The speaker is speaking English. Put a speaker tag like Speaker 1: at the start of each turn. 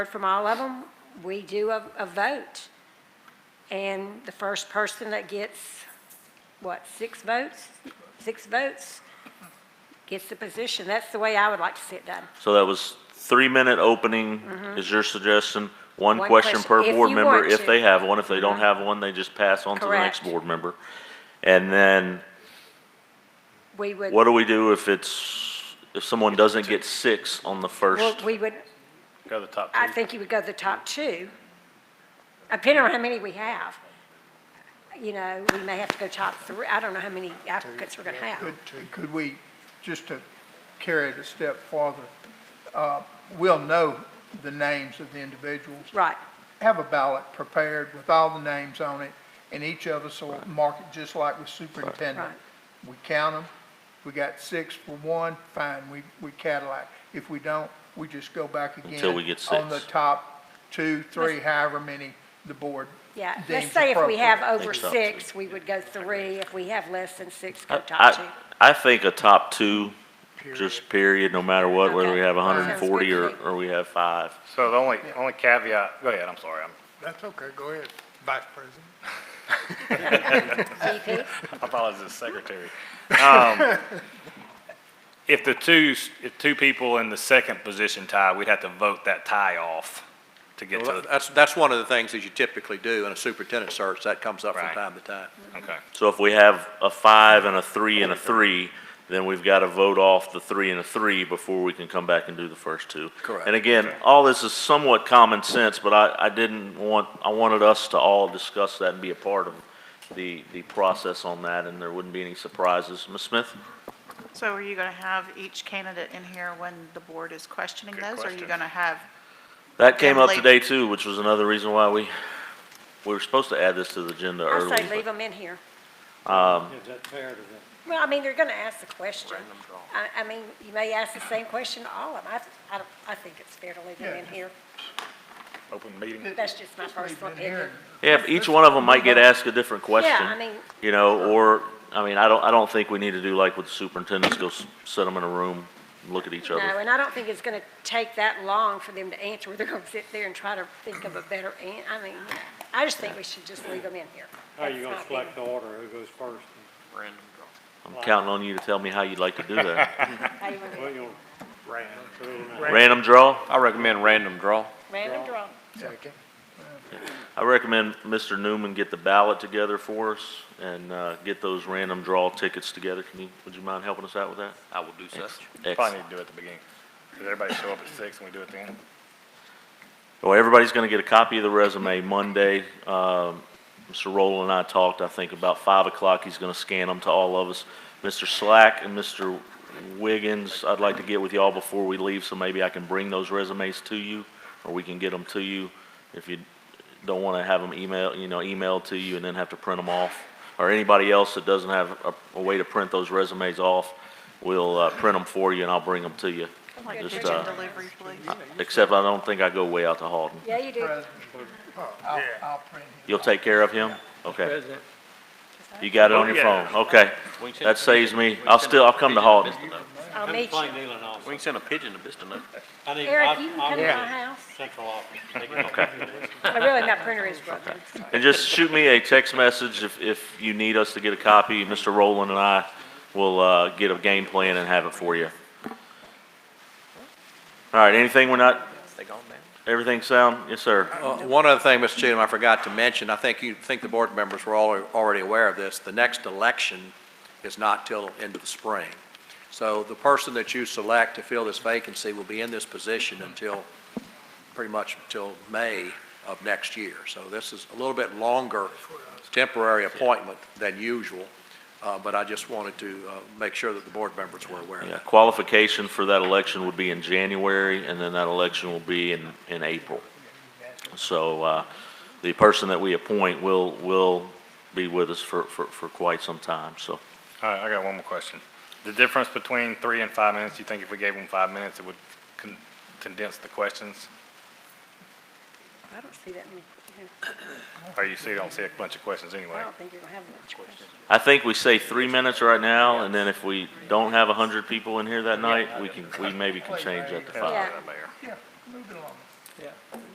Speaker 1: heard from all of them, we do a, a vote. And the first person that gets, what, six votes? Six votes gets the position. That's the way I would like to see it done.
Speaker 2: So that was three-minute opening is your suggestion? One
Speaker 1: Mm-hmm. One
Speaker 2: question per
Speaker 1: question, if
Speaker 2: board
Speaker 1: you
Speaker 2: member,
Speaker 1: want to.
Speaker 2: if
Speaker 1: Mm-hmm.
Speaker 2: they have one. If they don't have one, they just pass on to the next
Speaker 1: Correct.
Speaker 2: board member. And then
Speaker 1: We would,
Speaker 2: what do we do if it's, if someone doesn't get six on
Speaker 1: well,
Speaker 2: the first?
Speaker 1: we would,
Speaker 3: Go to the top
Speaker 1: I
Speaker 3: two.
Speaker 1: think you would go to the top two, depending on how many we have. You know, we may have to go top three. I don't know how many applicants we're going to have.
Speaker 4: Could, could we, just to carry it a step farther, uh, we'll know the names of the individuals.
Speaker 1: Right,
Speaker 4: Have a ballot prepared with all the names on it, and each of us will mark it just like with superintendent.
Speaker 1: Right.
Speaker 4: We count them. We got six for one, fine, we, we Cadillac. If we don't, we just go back again.
Speaker 2: Until we get
Speaker 4: On the
Speaker 2: six.
Speaker 4: top two, three, however many the board
Speaker 1: yeah. Let's
Speaker 4: deems
Speaker 1: say if we have
Speaker 4: appropriate.
Speaker 1: over
Speaker 2: Think top
Speaker 1: six, we would go three. If we have less than six, go
Speaker 2: I,
Speaker 1: top two.
Speaker 2: I I think a top two, just period, no matter what, whether we
Speaker 1: Okay.
Speaker 2: have hundred
Speaker 1: Sounds
Speaker 2: and
Speaker 1: good
Speaker 2: forty
Speaker 1: to
Speaker 2: or,
Speaker 1: me.
Speaker 2: or we have five.
Speaker 3: So the only, only caveat, go ahead, I'm sorry, I'm,
Speaker 5: That's okay, go ahead, Vice President.
Speaker 1: VP?
Speaker 3: I thought I was the secretary. Um, If the two, s- if two people in the second position tie, we'd have to vote that tie off to get
Speaker 6: Well,
Speaker 3: to,
Speaker 6: That's, that's one of the things that you typically do in a superintendent search, that comes up from
Speaker 3: Right.
Speaker 6: time to time.
Speaker 3: okay.
Speaker 2: So if we have a five and a three and a three, then we've got to vote off the three and a three before we can come back and do the first two.
Speaker 6: Correct.
Speaker 2: And again, all this is somewhat common sense, but I, I didn't want, I wanted us to all discuss that and be a part of the, the process on that, and there wouldn't be any surprises. Ms. Smith?
Speaker 7: So are you going to have each candidate in here when the board is questioning
Speaker 3: Good
Speaker 7: those? Or are you
Speaker 3: question.
Speaker 7: going to have,
Speaker 2: That came up
Speaker 7: Emily.
Speaker 2: today too, which was another reason why we, we were supposed to add this to the agenda early.
Speaker 1: I say
Speaker 2: but- Um,
Speaker 1: leave them in here. Well, I mean, they're going to ask the question. I, I mean, you may ask the same question to all of them. I, I, don't- I think it's fair to leave them in here.
Speaker 3: Open meeting.
Speaker 1: That's just my
Speaker 4: We've
Speaker 1: personal
Speaker 4: been
Speaker 1: opinion.
Speaker 4: hearing
Speaker 2: Yeah, but each one of them might get asked a different question.
Speaker 1: I mean-
Speaker 2: You know, or, I mean, I don't, I don't think we need to do like with the superintendents, go s- sit them in a room, and look at each
Speaker 1: No,
Speaker 2: other.
Speaker 1: and I don't think it's going to take that long for them to answer. They're going to sit there and try to think of a better an, I mean, I just think we should just leave them in here.
Speaker 8: How are you
Speaker 1: That's
Speaker 8: gonna
Speaker 1: my
Speaker 8: select
Speaker 1: opinion.
Speaker 8: the order, who goes first?
Speaker 2: I'm counting on you to tell me how you'd like to do that.
Speaker 1: How you wanna do it?
Speaker 8: Well, you'll. Random.
Speaker 2: Random draw?
Speaker 9: I recommend random draw.
Speaker 1: Random draw.
Speaker 2: I recommend Mr. Newman get the ballot together for us and, uh, get those random draw tickets together. Can you, would you mind helping us out with that?
Speaker 9: I will do such.
Speaker 2: Excellent.
Speaker 3: Probably need to do it at the beginning. Does everybody show up at six and we do it then?
Speaker 2: Well, everybody's going to get a copy of the resume Monday. Um, Mr. Rowland and I talked, I think about 5 o'clock, he's going to scan them to all of us. Mr. Slack and Mr. Wiggins, I'd like to get with y'all before we leave, so maybe I can bring those resumes to you, or we can get them to you if you don't want to have them email, you know, emailed to you and then have to print them off. Or anybody else that doesn't have a- a way to print those resumes off, we'll uh, print them for you and I'll bring them to you.
Speaker 7: like,
Speaker 2: Just,
Speaker 7: kitchen
Speaker 2: uh,
Speaker 7: delivery, please?
Speaker 2: Except I don't think I go way out to Halton.
Speaker 1: Yeah, you do.
Speaker 4: president. I'll, I'll print it.
Speaker 2: You'll take care of him? Okay. You got
Speaker 9: Oh,
Speaker 2: it on your phone? Okay. That saves me, I'll still, I'll come to Halton.
Speaker 1: I'll
Speaker 8: Come to
Speaker 1: meet you.
Speaker 8: Plain Dealing also.
Speaker 9: We can send a pigeon to Vista.
Speaker 8: I need-
Speaker 1: Eric,
Speaker 8: I-
Speaker 1: you can
Speaker 8: I
Speaker 1: come to
Speaker 8: want
Speaker 1: my house.
Speaker 8: Central office. They can help me with this.
Speaker 1: Oh, Really, my printer is broken.
Speaker 2: And just shoot me a text message if, if you need us to get a copy. Mr. Rowland and I will, uh, get a game plan and have it for you. All right, anything we're not,
Speaker 9: They gone now?
Speaker 2: everything sound? Yes, sir.
Speaker 6: Uh, One other thing, Mr. Cheatham, I forgot to mention, I think you, think the board members were all, already aware of this, the next election is not till into the spring. So the person that you select to fill this vacancy will be in this position until, pretty much until May of next year. So this is a little bit longer temporary appointment than usual, uh, but I just wanted to uh, make sure that the board members were aware of
Speaker 2: Yeah,
Speaker 6: that.
Speaker 2: qualification for that election would be in January, and then that election will be in, in April. So, uh, the person that we appoint will, will be with us for, for, for quite some time, so.
Speaker 3: All right, I got one more question. The difference between three and five minutes, you think if we gave them five minutes, it would con- condense the questions?
Speaker 1: I don't see that many.
Speaker 3: Or you see, don't see a bunch of questions
Speaker 1: I
Speaker 3: anyway?
Speaker 1: don't think you're going to have much questions.
Speaker 2: I think we say three minutes right now, and then if we don't have a hundred people in here that night, we can, we maybe can change that to five.
Speaker 1: Yeah.
Speaker 3: Mayor.
Speaker 4: Yeah, moving along. yeah.